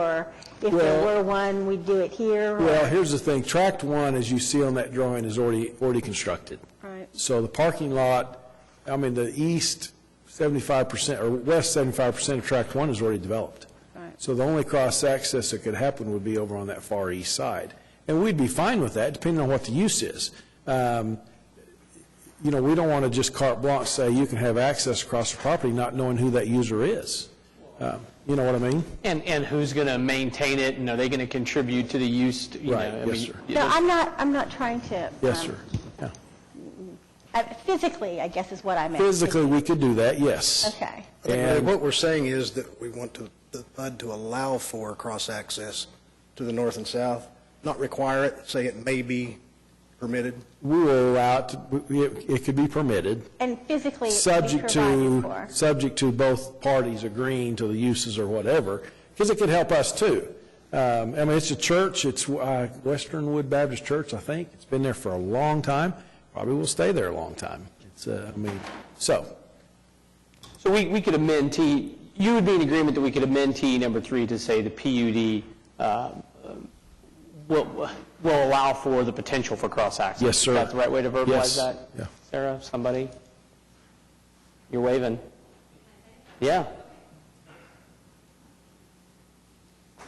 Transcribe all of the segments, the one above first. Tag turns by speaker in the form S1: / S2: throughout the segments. S1: or if there
S2: Well-
S1: were one, we'd do it here? or-
S2: Well, here's the thing, tract one, as you see on that drawing, is already, already constructed.
S1: Right.
S2: So the parking lot, I mean, the east 75%, or west 75% of tract one is already developed.
S1: Right.
S2: So the only cross-access that could happen would be over on that far east side. And we'd be fine with that, depending on what the use is. Um, You know, we don't want to just carte blanche say you can have access across the property, not knowing who that user is. Uh, You know what I mean?
S3: And, and who's going to maintain it, and are they going to contribute to the use, to- you know?
S2: Right,
S3: I
S2: yes,
S3: mean,
S2: sir.
S3: you
S1: No,
S3: know,
S1: I'm not, I'm not trying to.
S2: Yes,
S1: um,
S2: sir. Yeah.
S1: uh, Physically, I guess is what I meant.
S2: Physically, we could do that, yes.
S1: Okay.
S2: And-
S4: What we're saying is that we want to, the PUD to allow for cross-access to the north and south, not require it, say it may be permitted.
S2: we will allow it, to- it it could be permitted,
S1: And physically be
S2: subject
S1: provided
S2: to,
S1: for.
S2: subject to both parties agreeing to the uses or whatever, because it could help us too. Um, I mean, it's a church, it's uh, Western Wood Baptist Church, I think, it's been there for a long time, probably will stay there a long time. It's, uh, I mean, so,
S3: So we, we could amend T, you would be in agreement that we could amend T number three to say the PUD um, will, will allow for the potential for cross-access?
S2: Yes, sir.
S3: Is that the right way to
S2: Yes,
S3: verbalize that?
S2: yeah.
S3: Sarah, somebody? You're waving. Yeah.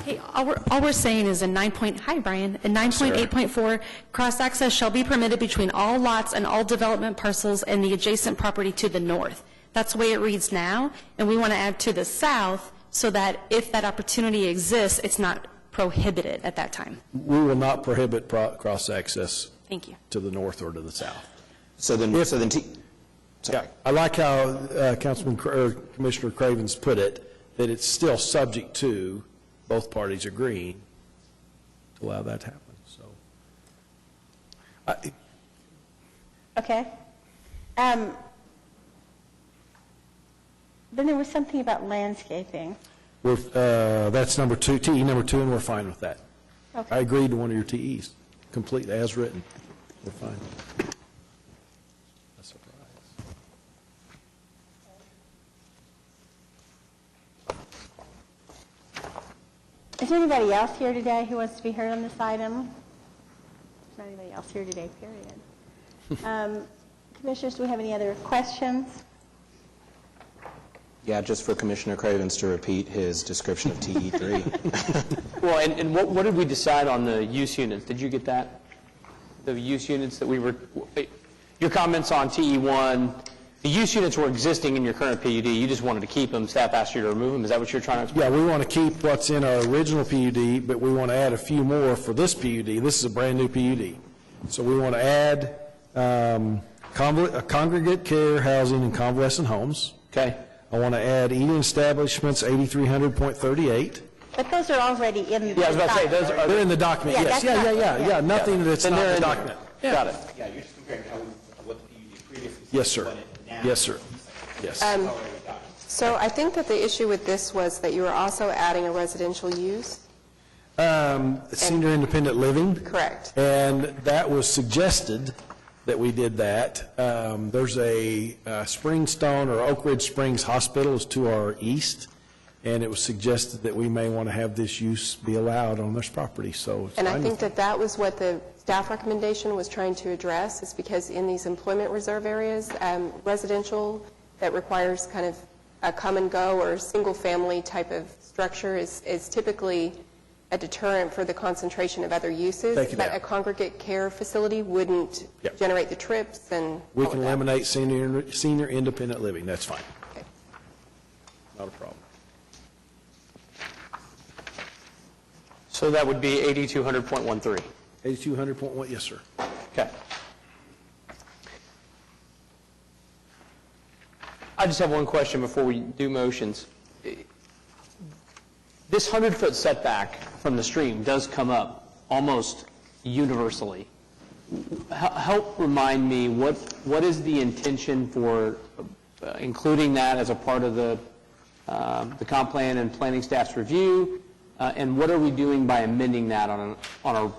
S5: Hey, all we're, all we're saying is in 9.0, hi, Brian, in 9.8.4, cross-access shall be permitted between all lots and all development parcels and the adjacent property to the north. That's the way it reads now, and we want to add to the south so that if that opportunity exists, it's not prohibited at that time.
S2: we will not prohibit pro- cross-access
S5: Thank you.
S2: to the north or to the south.
S6: So then, so then T,
S2: Yeah, I like how uh, Councilman, Cra- or Commissioner Cravens put it, that it's still subject to both parties agreeing to allow that to happen, so. I-
S1: Okay. Um, Then there was something about landscaping.
S2: We're, uh, that's number two, TE number two, and we're fine with that. I
S1: Okay.
S2: agreed to one of your TEs, completely, as written. We're fine. A surprise.
S1: Is there anybody else here today who wants to be heard on this item? There's not anybody else here today, period. Um, Commissioners, do we have any other questions?
S6: yeah, just for Commissioner Cravens to repeat his description of E TE3.
S3: Well, and, and what, what did we decide on the use units? Did you get that? The use units that we were, your comments on TE1, the use units were existing in your current PUD, you just wanted to keep them, staff asked you to remove them, is that what you're trying to explain?
S2: Yeah, we want to keep what's in our original PUD, but we want to add a few more for this PUD. This is a brand-new PUD. So we want to add um, convol- uh, congregate care housing and convalescent homes.
S3: Okay.
S2: I want to add eating establishments, 8,300.38.
S1: But those are already in the...
S3: Yeah, I was about to say,
S1: document.
S3: those are...
S2: They're in the document,
S1: Yeah,
S2: yes.
S1: that's
S2: Yeah,
S1: not-
S2: yeah, yeah,
S1: yeah.
S2: yeah, nothing that's
S3: Then
S2: not
S3: they're
S2: in
S3: in
S2: the
S3: there.
S2: document.
S3: Got it.
S7: Yeah, you're just comparing how, we- what the PUD previously.
S2: Yes, sir.
S7: what it now
S2: Yes, sir.
S8: Um,
S2: Yes.
S8: So I think that the issue with this was that you were also adding a residential use?
S2: Um, Senior independent living.
S8: Correct.
S2: And that was suggested that we did that. Um, There's a uh, Springstone or Oak Ridge Springs Hospital is to our east, and it was suggested that we may want to have this use be allowed on this property, so. it's
S8: And I
S2: fine
S8: think
S2: with me.
S8: that that was what the staff recommendation was trying to address, is because in these employment reserve areas, um, residential that requires kind of a come-and-go or single-family type of structure is is typically a deterrent for the concentration of other uses.
S2: Take it out.
S8: But a congregate care facility wouldn't
S2: Yep.
S8: generate the trips and
S2: We
S8: all of
S2: can
S8: that.
S2: eliminate senior, senior independent living, that's fine.
S8: Okay.
S2: Not a problem.
S3: So that would be 8200.13.
S2: 8200.1, yes, sir.
S3: Okay. I just have one question before we do motions. This 100-foot setback from the stream does come up almost universally. H- Help remind me, what, what is the intention for uh, including that as a part of the, um, the comp plan and planning staff's review? Uh, And what are we doing by amending that on an, on a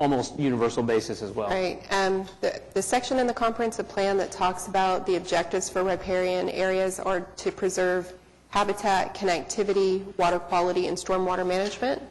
S3: almost universal basis as well?
S8: Right. um, The the section in the comprehensive plan that talks about the objectives for riparian areas are to preserve habitat, connectivity, water quality, and stormwater management.